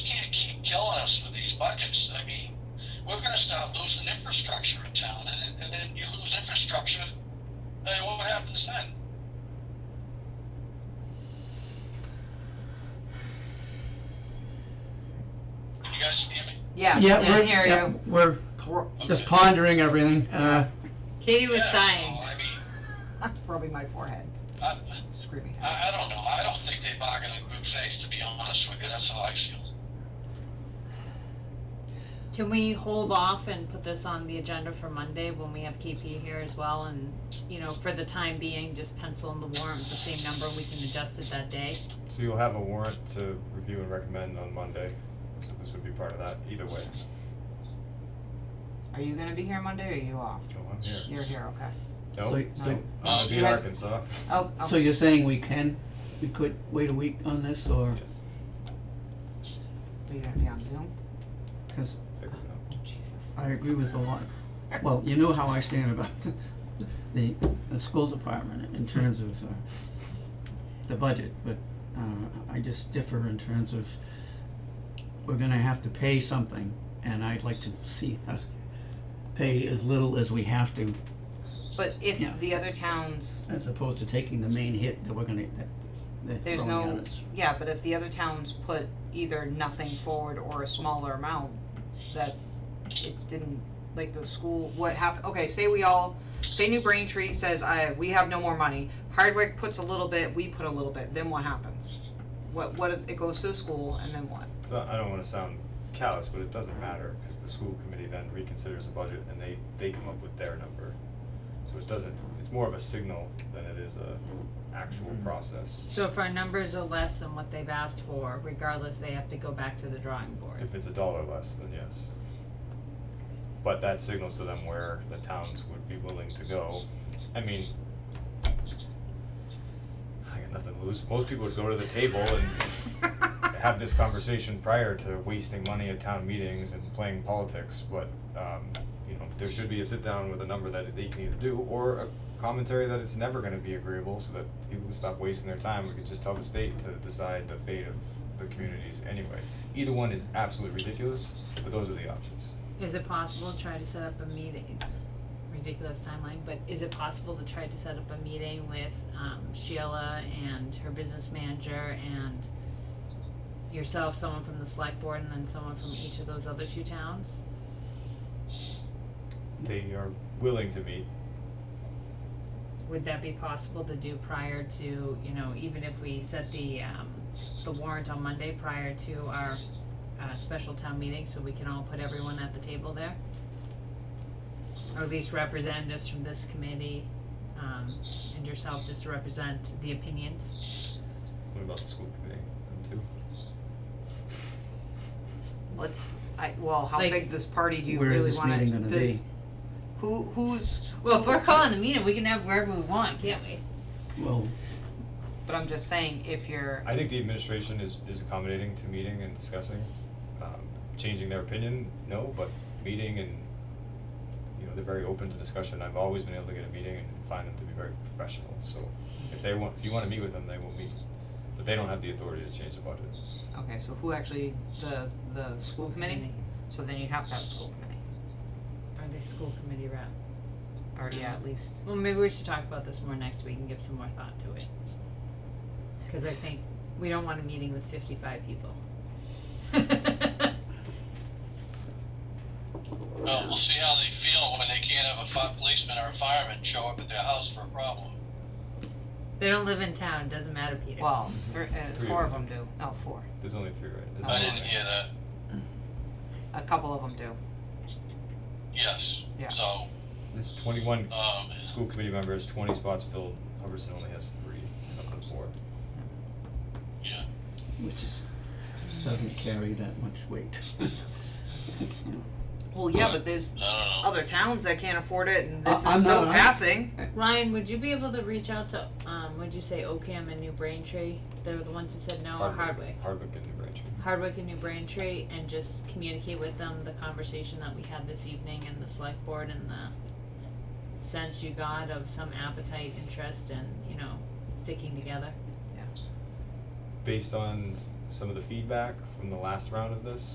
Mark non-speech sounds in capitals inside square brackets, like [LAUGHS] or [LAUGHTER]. budgets. I mean, we're gonna start losing infrastructure in town, and then, and then you lose infrastructure, then what happens then? Can you guys hear me? Yeah, Yeah, I we're, hear yeah, you. we're just pondering everything, uh, Katie was Yeah, so, sighing. I mean, [LAUGHS] Rubbing my forehead, I, screaming. I, I don't know, I don't think they bargain in good faith, to be honest with you, that's how I feel. Can we hold off and put this on the agenda for Monday when we have KP here as well and, you know, for the time being, just pencil in the warrant, with the same number, we can adjust it that day? So you'll have a warrant to review and recommend on Monday, so this would be part of that, either way. Are you gonna be here Monday or are you off? Oh, I'm here. You're here, okay. so, Nope, so, I'm gonna be in No. Arkansas, Oh, so oh, you're saying we can, we could wait a week on this, or, yes, are you gonna be on Zoom? because figured it out. Oh, Jesus. I agree with a lot. Well, you know how I stand about the, the, the school department in terms of, uh, the budget, but, uh, I just differ in terms of, we're gonna have to pay something, and I'd like to see us pay as little as we have to, But if Yeah. the other towns, as opposed to taking the main hit that we're gonna, that, they're there's throwing at no, us. yeah, but if the other towns put either nothing forward or a smaller amount, that it didn't, like the school, what happened, okay, say we all, say New Braintree says, I, we have no more money, Hardwick puts a little bit, we put a little bit, then what happens? What, what, if- it goes to the school and then what? So I don't wanna sound callous, but it doesn't matter, cause the school committee then reconsiders the budget and they, they come up with their number. So it doesn't, it's more of a signal than it is a actual Mm-hmm. process. So if our numbers are less than what they've asked for, regardless, they have to go back to the drawing [LAUGHS] board. If it's a dollar less, then yes. But that signals to them where the towns would be willing to go. I mean, I got nothing to lose. Most people would go to the table and have this conversation prior to wasting money at town meetings and playing politics, but, um, you know, there should be a sit-down with a number that they can either do, or a commentary that it's never gonna be agreeable, so that people can stop wasting their time, we can just tell the state to decide the fate of the communities anyway. Either one is absolutely ridiculous, but those are the options. Is it possible to try to set up a meeting? Ridiculous timeline, but is it possible to try to set up a meeting with um Sheila and her business manager and yourself, someone from the select board, and then someone from each of those other two towns? They are willing to meet, Would that be possible to do prior to, you know, even if we set the um the warrant on Monday prior to our uh special town meeting, so we can all put everyone at the table there? Or at least representatives from this committee, um and yourself just to represent the opinions? what about the school committee, them too? Let's, I, well, how Like- big this party do you Where is really this wanna, meeting gonna this, who, who's, Well, if we're calling the meeting, we can have wherever we want, can't we? Well, but I'm just saying, if you're, I think the administration is, is accommodating to meeting and discussing, um, changing their opinion, no, but meeting and, you know, they're very open to discussion, I've always been able to get a meeting and find them to be very professional, so if they want, if you wanna meet with them, they will meet, but they don't have the authority to change the budget. okay, so who actually, the, the school committee? So then you'd have to have a school committee, Or the school committee rep. or yeah, at least. Well, maybe we should talk about this more next week and give some more thought to it. Cause I think we don't want a meeting with fifty-five people. Well, we'll see how they feel when they can't have a fi- policeman or a fireman show up at their house for a problem. They don't live in town, doesn't matter, Peter. Well, three, uh, Three four of of them do. Oh, four. There's only three, right? There's I only didn't one. hear that, A couple of them do. yes. Yeah. So, There's twenty-one um, school committee members, twenty spots filled, Hubbardson only has three, of the four. yeah, which doesn't carry that much weight. Well, yeah, but there's I don't know. other towns that can't afford it, and this Uh, I'm is still not- I'm- passing. Ryan, would you be able to reach out to, um, would you say Ocam and New Braintree? They were the ones who said no, or Oh, Hardwick? Hardwick and New Braintree. Hardwick and New Braintree and just communicate with them the conversation that we had this evening and the select board and the sense you got of some appetite, interest and, you know, sticking together. Based on s- some of the feedback from the last round of this,